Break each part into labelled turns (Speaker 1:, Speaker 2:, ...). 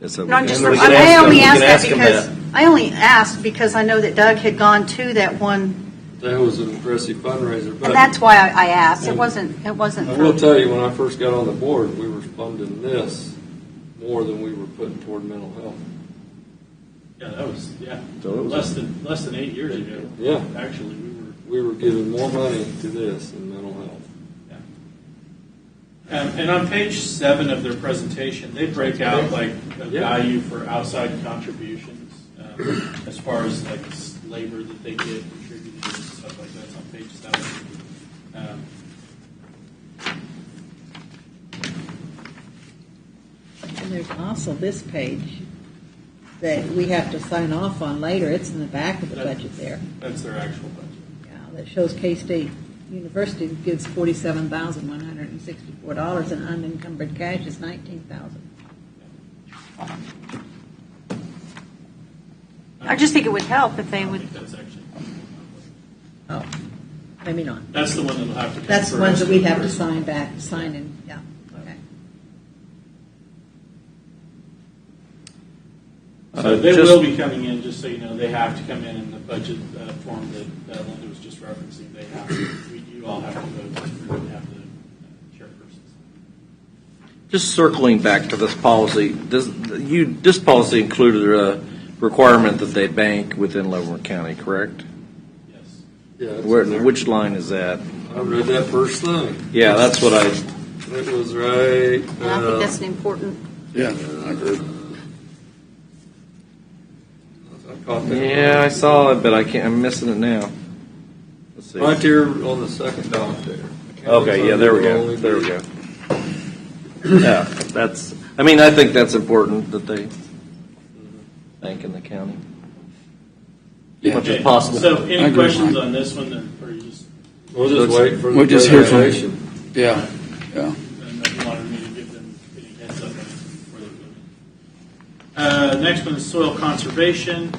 Speaker 1: That's something
Speaker 2: No, I'm
Speaker 1: we
Speaker 2: just,
Speaker 1: have.
Speaker 3: we can
Speaker 2: I
Speaker 3: ask
Speaker 2: only
Speaker 3: them-
Speaker 2: asked
Speaker 3: we can
Speaker 2: that
Speaker 3: ask them
Speaker 2: because, I only asked because I know that Doug had gone to that one,
Speaker 4: That was an impressive fundraiser, but
Speaker 2: and that's why I I asked. It
Speaker 4: And-
Speaker 2: wasn't, it wasn't
Speaker 4: I will
Speaker 2: for,
Speaker 4: tell you, when I first got on the board, we were funding this more than we were putting toward mental health.
Speaker 5: Yeah, that was, yeah,
Speaker 1: So it was-
Speaker 5: less than, less than eight years ago.
Speaker 4: Yeah.
Speaker 5: Actually, we were,
Speaker 4: We were giving more money to this than mental health.
Speaker 5: um, and on page seven of their presentation, they break out like a
Speaker 4: Yeah.
Speaker 5: value for outside contributions, um, as far as like s- labor that they get contributed and stuff like that, it's on page seven. Um,
Speaker 6: And there's also this page that we have to sign off on later. It's in the back of the budget there.
Speaker 5: That's their actual budget.
Speaker 6: Yeah, That shows K-State University gives forty-seven thousand one hundred and sixty-four dollars and unencumbered cash is nineteen thousand.
Speaker 2: I just think it would help if they
Speaker 5: I
Speaker 2: would,
Speaker 5: think that's actually,
Speaker 6: Oh, maybe not.
Speaker 5: that's the one that'll have to. come
Speaker 6: That's the ones that
Speaker 5: first.
Speaker 6: we have to sign back, sign in, yeah, okay.
Speaker 5: So
Speaker 1: Uh,
Speaker 5: they
Speaker 1: just-
Speaker 5: will be coming in, just so you know, they have to come in in the budget uh, form that uh, Linda was just referencing. They have, to- we- you all have to vote to have the uh, chairpersons.
Speaker 1: Just circling back to this policy, this, you, this policy included a requirement that they bank within Leavenworth County, correct?
Speaker 5: Yes.
Speaker 4: Yeah, it's in
Speaker 1: Where,
Speaker 4: there.
Speaker 1: which line is that?
Speaker 4: I read that first thing.
Speaker 1: Yeah, that's what I,
Speaker 4: It was right.
Speaker 2: and I
Speaker 4: uh,
Speaker 2: think that's an important,
Speaker 7: Yeah, I agree.
Speaker 4: I caught that.
Speaker 1: yeah, I saw it, but I can't, I'm missing it now. Let's see.
Speaker 4: Right there on the second dot there.
Speaker 1: Okay, yeah, there we go, there we go. Yeah, that's, I mean, I think that's important that they bank in the county. As much as
Speaker 5: Okay,
Speaker 1: possible.
Speaker 5: So
Speaker 7: I agree
Speaker 5: any
Speaker 7: with
Speaker 5: questions
Speaker 7: Mike.
Speaker 5: on this one, or or you just,
Speaker 4: We'll just wait for the.
Speaker 7: We'll just hear from-
Speaker 4: presentation.
Speaker 5: I
Speaker 7: Yeah, yeah.
Speaker 5: don't know if you wanted me to give them any heads up on where they're going. Uh, Next one is soil conservation.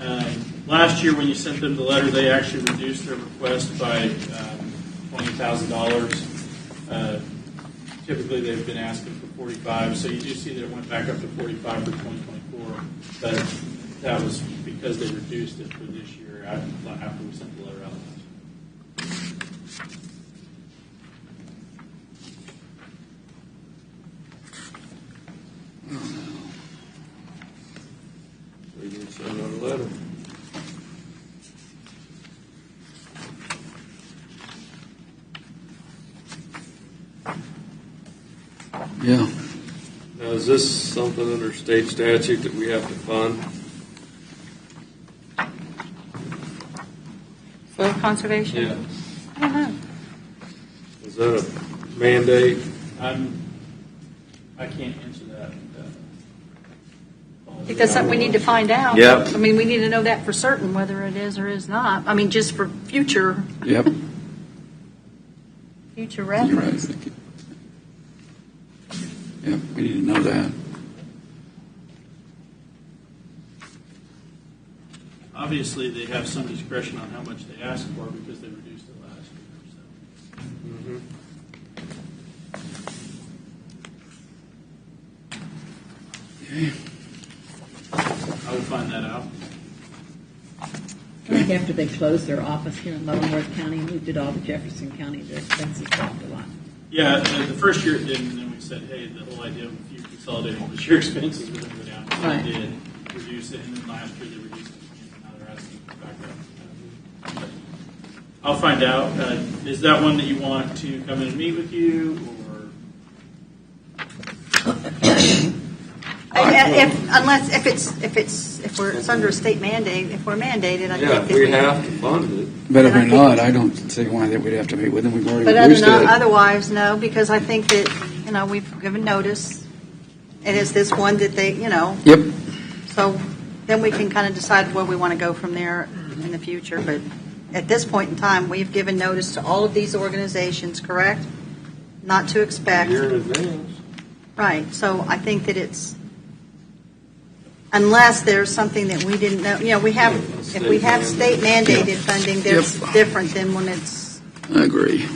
Speaker 5: Um, Last year, when you sent them the letter, they actually reduced their request by um, $20,000. Uh, Typically, they've been asking for 45, so you do see that it went back up to 45 for 2024, but that was because they reduced it for this year af- after we sent the letter out. last year.
Speaker 4: We can send another letter.
Speaker 7: Yeah.
Speaker 4: Now, is this something under state statute that we have to fund?
Speaker 2: soil conservation. I don't know.
Speaker 4: Is that a mandate?
Speaker 5: I'm, Um, I can't answer that. uh,
Speaker 2: I think that's something we need to find out.
Speaker 1: Yeah.
Speaker 2: I mean, we need to know that for certain, whether it is or is not. I mean, just for future,
Speaker 7: Yep.
Speaker 2: future
Speaker 7: You're right.
Speaker 2: reference.
Speaker 7: Yep. We need to know that.
Speaker 5: Obviously, they have some discretion on how much they ask for because they reduced it last year, so. I will find that out.
Speaker 6: I think after they closed their office here in Leavenworth County, and moved it all to Jefferson County, their expenses dropped a lot.
Speaker 5: Yeah, uh, the the first year it didn't, and then we said, hey, the whole idea of you consolidating was your expenses were gonna go down. So
Speaker 6: Right.
Speaker 5: they did reduce it, and then last year they reduced it, and now they're asking for back up. I'll find out. Uh, Is that one that you want to come in and meet with you, or?
Speaker 2: I- I- If, unless, if it's, if it's, if we're, it's under a state mandate, if we're mandated, I think.
Speaker 4: Yeah, if
Speaker 2: that
Speaker 4: we have to fund it.
Speaker 7: But if
Speaker 2: And I
Speaker 7: we're not,
Speaker 2: think-
Speaker 7: I don't see why that we'd have to meet with them. We've already
Speaker 2: But other
Speaker 7: reduced
Speaker 2: than,
Speaker 7: it.
Speaker 2: otherwise, no, because I think that, you know, we've given notice. It is this one that they, you know,
Speaker 7: Yep.
Speaker 2: so then we can kind of decide where we want to go from there in the future. But at this point in time, we've given notice to all of these organizations, correct? Not to
Speaker 4: a
Speaker 2: expect.
Speaker 4: year in advance.
Speaker 2: Right, so I think that it's, unless there's something that we didn't know, you know, we have, if we have state mandated funding, that's
Speaker 7: Yep.
Speaker 2: different than when it's,
Speaker 7: I agree.